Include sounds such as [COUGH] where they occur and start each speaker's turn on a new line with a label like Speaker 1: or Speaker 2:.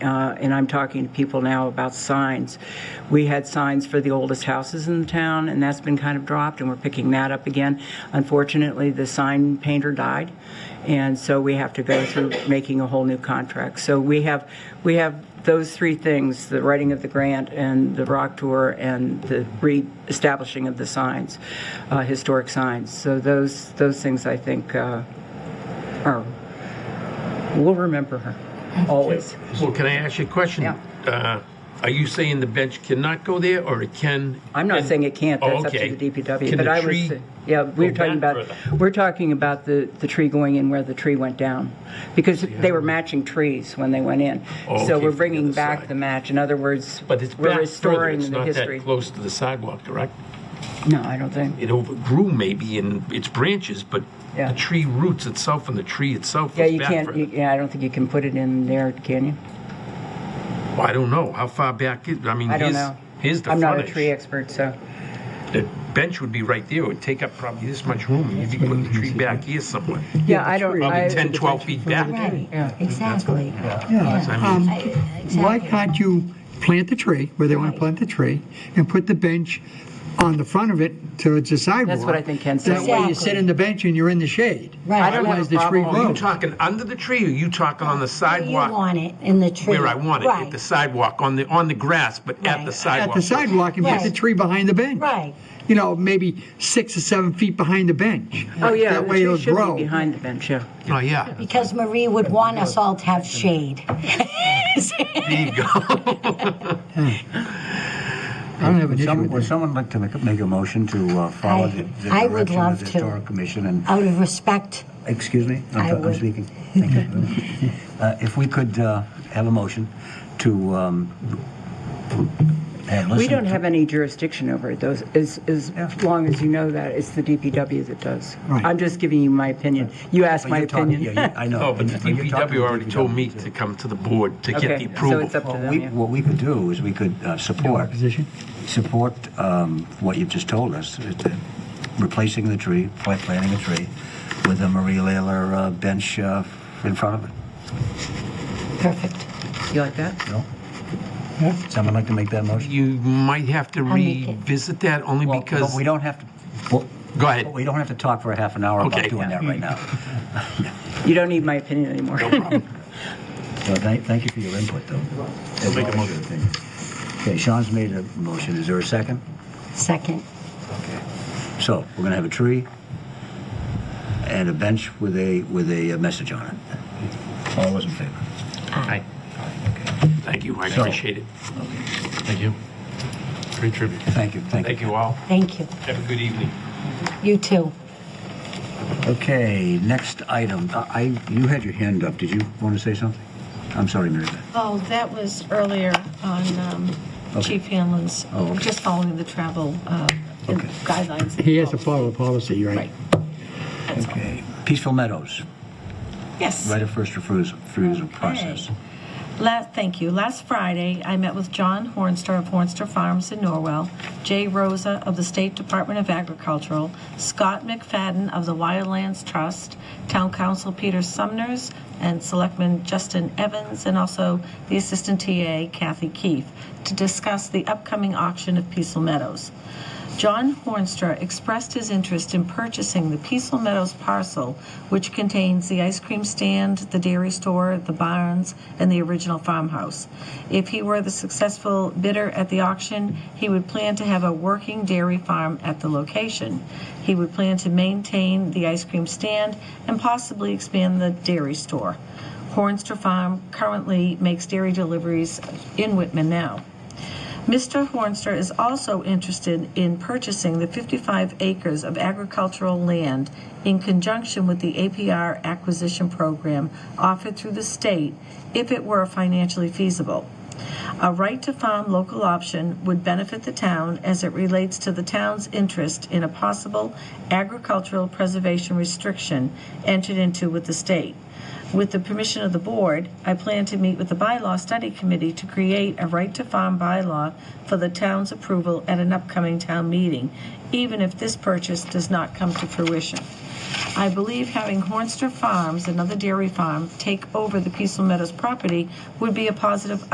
Speaker 1: uh, and I'm talking to people now about signs. We had signs for the oldest houses in the town, and that's been kind of dropped, and we're picking that up again. Unfortunately, the sign painter died, and so we have to go through [COUGHS] making a whole new contract. So we have, we have those three things, the writing of the grant and the rock tour and the re-establishing of the signs, uh, historic signs. So those, those things I think uh, are, we'll remember her, always.
Speaker 2: Well, can I ask you a question?
Speaker 1: Yeah.
Speaker 2: Uh, Are you saying the bench cannot go there, or it can?
Speaker 1: I'm not saying it can't,
Speaker 2: Oh,
Speaker 1: that's up
Speaker 2: okay.
Speaker 1: to the DPW,
Speaker 2: Can
Speaker 1: but
Speaker 2: the
Speaker 1: I was,
Speaker 2: tree
Speaker 1: yeah, we were
Speaker 2: go
Speaker 1: talking
Speaker 2: back
Speaker 1: about,
Speaker 2: further?
Speaker 1: we're talking about the, the tree going in where the tree went down, because they were matching trees when they went in.
Speaker 2: Oh,
Speaker 1: So
Speaker 2: okay,
Speaker 1: we're
Speaker 2: from the
Speaker 1: bringing
Speaker 2: other
Speaker 1: back
Speaker 2: side.
Speaker 1: the match, in other words,
Speaker 2: But it's
Speaker 1: we're
Speaker 2: back further,
Speaker 1: restoring
Speaker 2: it's
Speaker 1: the
Speaker 2: not
Speaker 1: history.
Speaker 2: that close to the sidewalk, correct?
Speaker 1: No, I don't think.
Speaker 2: It overgrew maybe in its branches, but
Speaker 1: Yeah.
Speaker 2: the tree roots itself and the tree itself
Speaker 1: Yeah,
Speaker 2: is
Speaker 1: you
Speaker 2: back
Speaker 1: can't, you-
Speaker 2: further.
Speaker 1: yeah, I don't think you can put it in there, can you?
Speaker 2: Well, I don't know, how far back is, I mean,
Speaker 1: I don't
Speaker 2: here's,
Speaker 1: know.
Speaker 2: here's the
Speaker 1: I'm not a tree
Speaker 2: frontage.
Speaker 1: expert, so,
Speaker 2: The bench would be right there, it would take up probably this much room, and you could put the tree back here somewhere,
Speaker 1: yeah, I don't,
Speaker 2: probably
Speaker 1: I,
Speaker 2: 10, 12 feet back.
Speaker 3: Right,
Speaker 1: Yeah.
Speaker 3: exactly.
Speaker 2: So I mean,
Speaker 4: Um, Why can't you plant the tree where they want to plant the tree and put the bench on the front of it towards the sidewalk?
Speaker 1: what I think Ken said.
Speaker 4: That way you sit in the bench and you're in the shade.
Speaker 3: Right. I don't have a
Speaker 4: Otherwise, the tree
Speaker 2: Are you
Speaker 4: grows.
Speaker 2: talking under the tree, or you talking on the
Speaker 3: Where Um, you
Speaker 2: sidewalk?
Speaker 3: want it, in the tree.
Speaker 2: Where I want it, at
Speaker 3: Right,
Speaker 2: the sidewalk, on the, on the grass, but at
Speaker 3: Right.
Speaker 2: the
Speaker 3: At
Speaker 4: At
Speaker 2: sidewalk.
Speaker 4: the sidewalk and put the
Speaker 3: Right.
Speaker 4: tree behind the bench.
Speaker 3: right.
Speaker 4: You know, maybe six or seven feet behind the bench.
Speaker 1: oh, yeah, the
Speaker 4: That way
Speaker 1: tree
Speaker 4: it'll
Speaker 1: should
Speaker 4: grow.
Speaker 1: be behind the bench, yeah.
Speaker 2: Oh, yeah.
Speaker 3: Because Marie would want us all to have shade. [LAUGHS]
Speaker 2: There you go.
Speaker 4: I don't have an
Speaker 5: Would
Speaker 4: issue
Speaker 5: some-
Speaker 4: with
Speaker 5: would
Speaker 4: that.
Speaker 5: someone like to make, make a motion to uh, follow the the
Speaker 3: I- I would
Speaker 5: direction
Speaker 3: love
Speaker 5: of the
Speaker 3: to.
Speaker 5: Historic Commission and,
Speaker 3: Out of respect,
Speaker 5: excuse me? I'm
Speaker 3: I
Speaker 5: t- I'm
Speaker 3: would.
Speaker 5: speaking.
Speaker 3: [LAUGHS]
Speaker 5: Thank you. Uh, If we could uh, have a motion to um, have
Speaker 1: We
Speaker 5: listen
Speaker 1: don't
Speaker 5: to-
Speaker 1: have any jurisdiction over it, those, as, as long as you know that, it's the DPW that does.
Speaker 4: Right.
Speaker 1: I'm just giving you my opinion. You asked
Speaker 5: but
Speaker 1: my
Speaker 5: you're talking-
Speaker 1: opinion. [LAUGHS]
Speaker 5: yeah,
Speaker 2: [LAUGHS]
Speaker 5: you- I know.
Speaker 2: No, Oh, but the
Speaker 5: you're talking
Speaker 2: DPW
Speaker 5: to
Speaker 2: already told me
Speaker 5: DPW.
Speaker 2: to come to the board to get
Speaker 1: Okay,
Speaker 2: the
Speaker 1: so it's up
Speaker 2: approval.
Speaker 1: to
Speaker 5: What we,
Speaker 1: them, yeah.
Speaker 5: what we could do is we could uh, support,
Speaker 4: Position?
Speaker 5: support um, what you've just told us, uh, replacing the tree, pla- planting a tree with a Marie Layler uh, bench uh, in front of it.
Speaker 3: perfect.
Speaker 1: You like that?
Speaker 5: No? Someone like to make that motion?
Speaker 2: You might have to
Speaker 3: I'll make it.
Speaker 2: revisit that only
Speaker 5: Well,
Speaker 2: because,
Speaker 5: but we don't have to, well,
Speaker 2: go ahead.
Speaker 5: we don't have to talk for a half an hour
Speaker 2: Okay.
Speaker 5: about doing that right [LAUGHS] now.
Speaker 1: You don't need my opinion anymore.
Speaker 5: So thank, thank you for your input, though. That's
Speaker 2: make a
Speaker 5: all I
Speaker 2: motion.
Speaker 5: should think. Okay, Sean's made a motion. Is there a second?
Speaker 3: Second,
Speaker 5: So we're gonna have a tree and a bench with a, with a message on it. All those in favor?
Speaker 2: Hi. Thank you, I appreciate it. Thank you. Great tribute.
Speaker 5: Thank you, thank you.
Speaker 2: Thank you all.
Speaker 3: thank you.
Speaker 2: Have a good evening.
Speaker 3: You too.
Speaker 5: Okay, next item. I, I- you had your hand up. Did you want to say something? I'm sorry, Mary Beth.
Speaker 6: Oh, that was earlier on um,
Speaker 5: Okay.
Speaker 6: Chief Hanlon's,
Speaker 5: Oh, okay.
Speaker 6: just following the travel uh,
Speaker 5: Okay.
Speaker 6: guidelines.
Speaker 4: He has to follow the policy, right?
Speaker 6: Right. That's all.
Speaker 5: Okay, Peaceful Meadows,
Speaker 6: Yes.
Speaker 5: right of first refusal, refusal process.
Speaker 6: Okay. Last, thank you. Last Friday, I met with John Hornster of Hornster Farms in Norwell, Jay Rosa of the State Department of Agricultural, Scott McFadden of the Wildlands Trust, Town Council Peter Sumners, and Selectman Justin Evans, and also the Assistant TA Kathy Keefe, to discuss the upcoming auction of Peaceful Meadows. John Hornstra expressed his interest in purchasing the Peaceful Meadows parcel, which contains the ice cream stand, the dairy store, the barns, and the original farmhouse. If he were the successful bidder at the auction, he would plan to have a working dairy farm at the location. He would plan to maintain the ice cream stand and possibly expand the dairy store. Hornstra Farm currently makes dairy deliveries in Whitman now. Mr. Hornster is also interested in purchasing the 55 acres of agricultural land in conjunction with the APR acquisition program offered through the state if it were financially feasible. A right to farm local option would benefit the town as it relates to the town's interest in a possible agricultural preservation restriction entered into with the state. With the permission of the board, I plan to meet with the bylaw study committee to create a right to farm bylaw for the town's approval at an upcoming town meeting, even if this purchase does not come to fruition. I believe having Hornster Farms, another dairy farm, take over the Peaceful Meadows property would be a positive